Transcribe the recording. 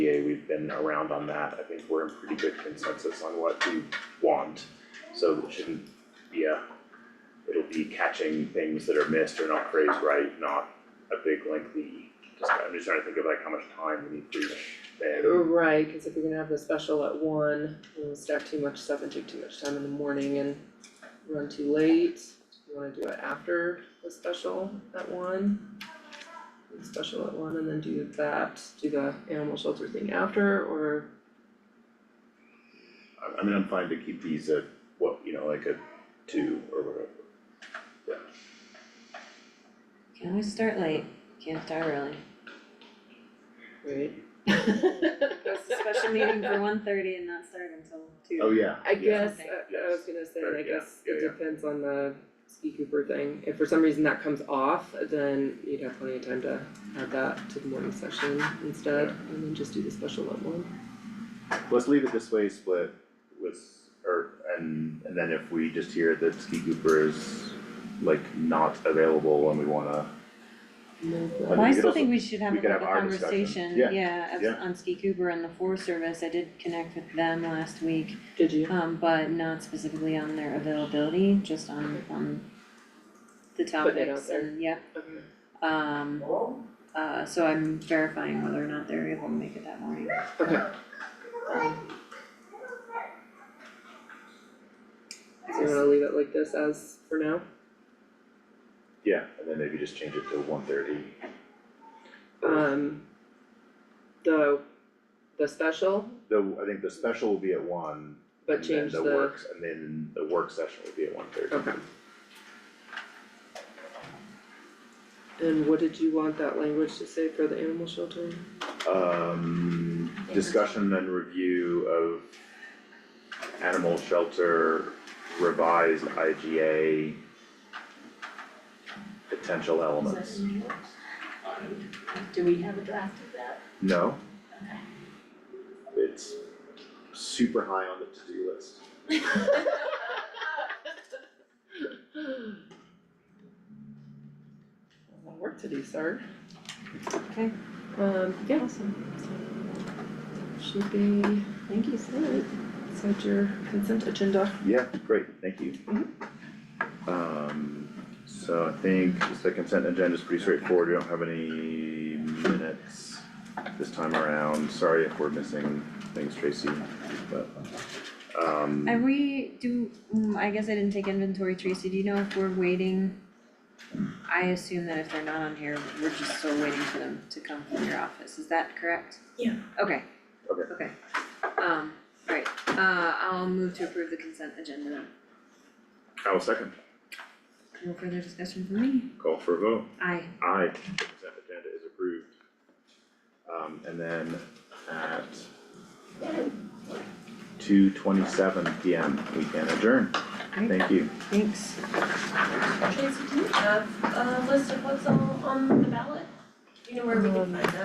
been around on that, I think we're in pretty good consensus on what we want. So it shouldn't be a, it'll be catching things that are missed or not phrased right, not a big lengthy, just, I'm just trying to think of like how much time we need for each thing. Right, cause if you're gonna have the special at one, you wanna stack too much stuff and take too much time in the morning and run too late. You wanna do it after the special at one. do the Special at one and then do that, do the animal shelter thing after, or I, I mean, I'm fine to keep these at what, you know, like a two or whatever. Can we start late? Can't start early. wait. It's a special meeting for one thirty and not start until two. Oh, yeah. I guess, Okay. I I was gonna say, Or, I yeah, guess yeah, yeah. it depends on the ski Cooper thing, if for some reason that comes off, then you'd have plenty of time to add that to the morning session instead, and then just do the special at one. Let's leave it this way, split with, or, and, and then if we just hear that Ski Cooper is like not available and we wanna, Well, we I could still also- think we should have we like could a have our discussion. conversation, Yeah, yeah, of- yeah. on Ski Cooper and the Forest Service, I did connect with them last week. Did you? Um, but not specifically on their availability, just on, on the Putting it out topics there. and, yeah, Okay. um. Uh, so I'm verifying whether or not they're able to make it that morning. Okay. So you wanna leave it like this as for now? yeah, and then maybe just change it to one thirty. Um, the, the special, The, I think the special will be at one, but and then change the the, works, and then the work session will be at one thirty. okay. And what did you want that language to say for the animal shelter? Um, discussion and review of animal shelter revised IGA potential elements. Do we have a draft of that? No. It's super high on the to-do list. Work to do, sir. Okay. Um, yeah, Awesome, should be, thank you so much. is that your consent agenda? Yeah, great, thank you. Um, so I think just the consent agenda is pretty straightforward, we don't have any minutes this time around, sorry if we're missing things, Tracy, but, um. Are we, do, mm, I guess I didn't take inventory, Tracy, do you know if we're waiting? I assume that if they're not on here, we're just still waiting for them to come from your office, is that correct? Yeah. Okay. Okay. Okay, um, alright, uh, I'll move to approve the consent agenda then. I will second, No further discussion from me, call for a vote. aye. Aye, the consent agenda is approved. Um, and then at two twenty-seven P M, we can adjourn. Thank you. Thanks. Tracy, do you have a list of what's all on the ballot? Do you know where we can find that?